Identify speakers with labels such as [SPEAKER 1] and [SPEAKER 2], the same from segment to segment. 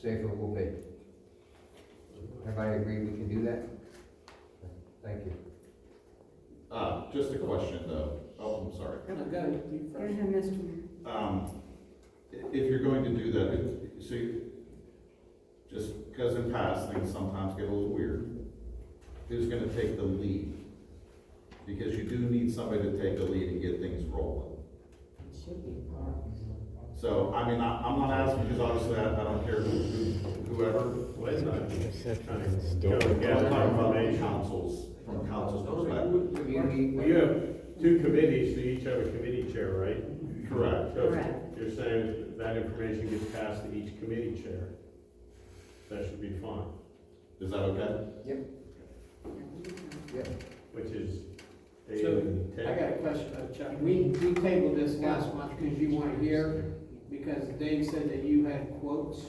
[SPEAKER 1] safer we'll be. Everybody agree we can do that? Thank you.
[SPEAKER 2] Uh, just a question though, oh, I'm sorry.
[SPEAKER 3] Kind of got it deep
[SPEAKER 4] Go
[SPEAKER 3] fresh.
[SPEAKER 4] ahead, Mr. Mayor.
[SPEAKER 2] Um, i- if you're going to do that, it- so you, just because in past, things sometimes get a little weird. Who's gonna take the lead? Because you do need somebody to take the lead and get things rolling. So, I mean, I, I'm not asking, because obviously I, I don't care who, who- whoever.
[SPEAKER 5] Wait a minute.
[SPEAKER 6] Still-
[SPEAKER 2] I'm talking about the
[SPEAKER 5] information.
[SPEAKER 2] councils, from council's perspective.
[SPEAKER 1] Community-
[SPEAKER 5] Well, you have two committees, so you each have a committee chair, right?
[SPEAKER 2] Correct.
[SPEAKER 5] So
[SPEAKER 4] Correct.
[SPEAKER 5] You're saying that information gets passed to each committee chair. That should be fine,
[SPEAKER 2] Is that okay?
[SPEAKER 5] which is eight
[SPEAKER 3] So,
[SPEAKER 5] and
[SPEAKER 3] I
[SPEAKER 5] ten.
[SPEAKER 3] got a question, uh, Chuck. We, we tabled this last month because you weren't here, because Dave said that you had quotes.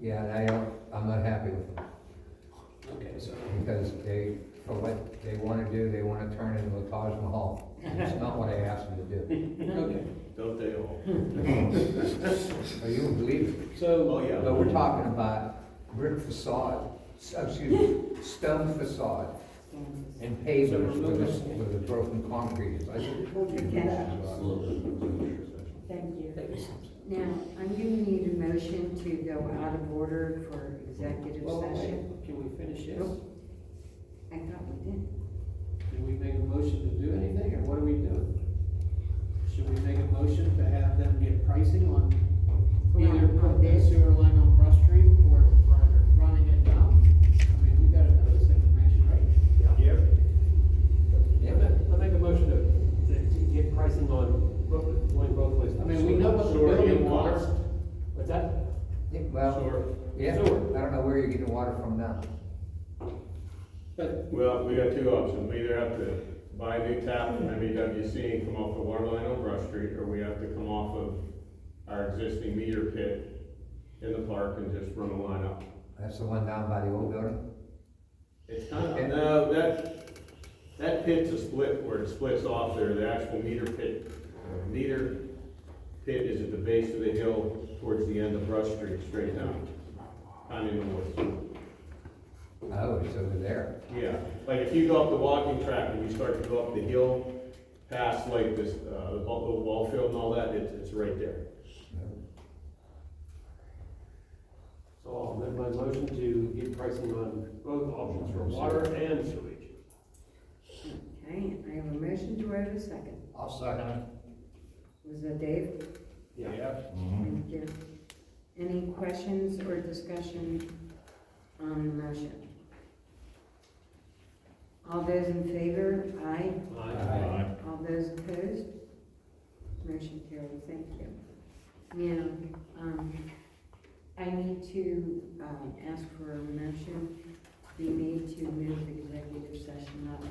[SPEAKER 1] Yeah, and I don't, I'm not happy with them,
[SPEAKER 3] Okay, so.
[SPEAKER 1] because they, for what they wanna do, they wanna turn it into a Taj Mahal. It's not what I asked them to do.
[SPEAKER 3] Okay,
[SPEAKER 5] Don't they all?
[SPEAKER 1] Are you believe it?
[SPEAKER 3] so,
[SPEAKER 5] yeah.
[SPEAKER 1] But we're talking about brick facade, s- oh, excuse me, stone facade and pavers with a, with a broken concrete. I said, "Told you to do that."
[SPEAKER 4] Thank you. Now, I'm gonna need a motion to go out of order for executive
[SPEAKER 3] well,
[SPEAKER 4] session.
[SPEAKER 3] wait, can we finish this?
[SPEAKER 4] Nope. I thought we did.
[SPEAKER 3] Did we make a motion to do anything, or what are we doing? Should we make a motion to have them get pricing on either
[SPEAKER 4] Well,
[SPEAKER 3] putting the
[SPEAKER 4] this-
[SPEAKER 3] sewer line on Rush Street or running it down? I mean, we gotta know this information, right?
[SPEAKER 7] Yep.
[SPEAKER 1] Yeah.
[SPEAKER 7] I make a motion to, to to get pricing on both, going both ways.
[SPEAKER 3] I mean, we know what the
[SPEAKER 5] Sewer and
[SPEAKER 3] building
[SPEAKER 5] water.
[SPEAKER 3] wants.
[SPEAKER 7] What's that?
[SPEAKER 1] Yeah, Well,
[SPEAKER 5] Sure.
[SPEAKER 1] yeah, I
[SPEAKER 7] Sewer.
[SPEAKER 1] don't know where you're getting water from now.
[SPEAKER 3] But,
[SPEAKER 5] Well, we got two options. We either have to buy a new tap from MEWC and come off the water line on Brush Street, or we have to come off of our existing meter pit in the park and just run a line up.
[SPEAKER 1] That's the one down by the old building?
[SPEAKER 5] It's kind of, no, that, that pit's a split where it splits off there. The actual meter pit, uh, meter pit is at the base of the hill towards the end of Brush Street, straight down. Kind of in the woods.
[SPEAKER 1] Oh, it's over there.
[SPEAKER 5] Yeah, like if you go up the walking track and you start to go up the hill, past like this, uh, the ball, the ball field and all that, it's, it's right there.
[SPEAKER 7] So I'll amend my motion to get pricing on both options for water and sewage.
[SPEAKER 4] Okay, I have a motion, do I have a second?
[SPEAKER 1] I'll second
[SPEAKER 4] Was that Dave?
[SPEAKER 5] Yeah.
[SPEAKER 4] Thank you. Any questions or discussion on the motion? All those in favor, aye.
[SPEAKER 1] Aye.
[SPEAKER 4] All those opposed? Motion carries, thank you. Now, um, I need to, um, ask for a motion to be made to move the executive session up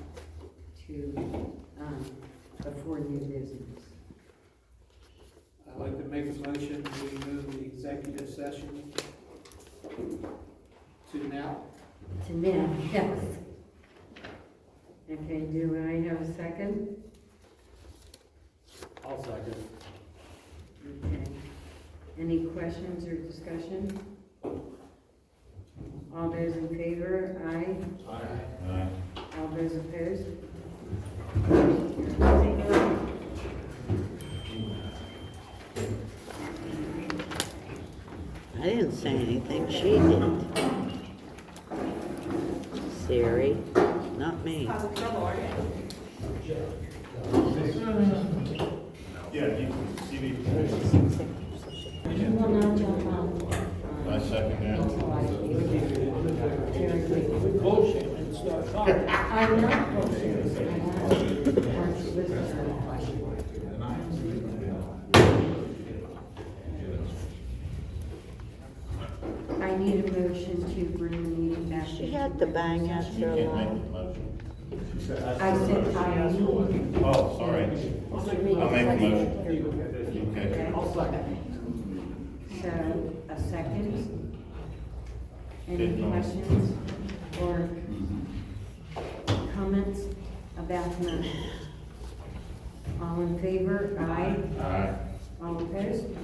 [SPEAKER 4] to, um, before new business.
[SPEAKER 3] I'd like to make a motion, we move the executive session to now.
[SPEAKER 4] To now, yes. Okay, do I have a second?
[SPEAKER 7] I'll second.
[SPEAKER 4] Okay. Any questions or discussion? All those in favor, aye? All those opposed?
[SPEAKER 8] I didn't say anything, she did. Siri, not me.
[SPEAKER 6] Yeah, you can see
[SPEAKER 4] You will not jump on.
[SPEAKER 6] I second that.
[SPEAKER 4] Until I leave.
[SPEAKER 3] Bullshit, and start talking.
[SPEAKER 4] I'm not going to, I'm not going to listen to questions. I need a motion to bring the meeting back.
[SPEAKER 8] She had to bang us for a while.
[SPEAKER 4] I said I need.
[SPEAKER 6] Oh, sorry. I'll make a motion. Okay.
[SPEAKER 4] Okay.
[SPEAKER 7] I'll second.
[SPEAKER 4] So, a second? Any
[SPEAKER 6] Did not.
[SPEAKER 4] questions or comments about the motion? All in favor, aye?
[SPEAKER 6] All right.
[SPEAKER 4] All opposed?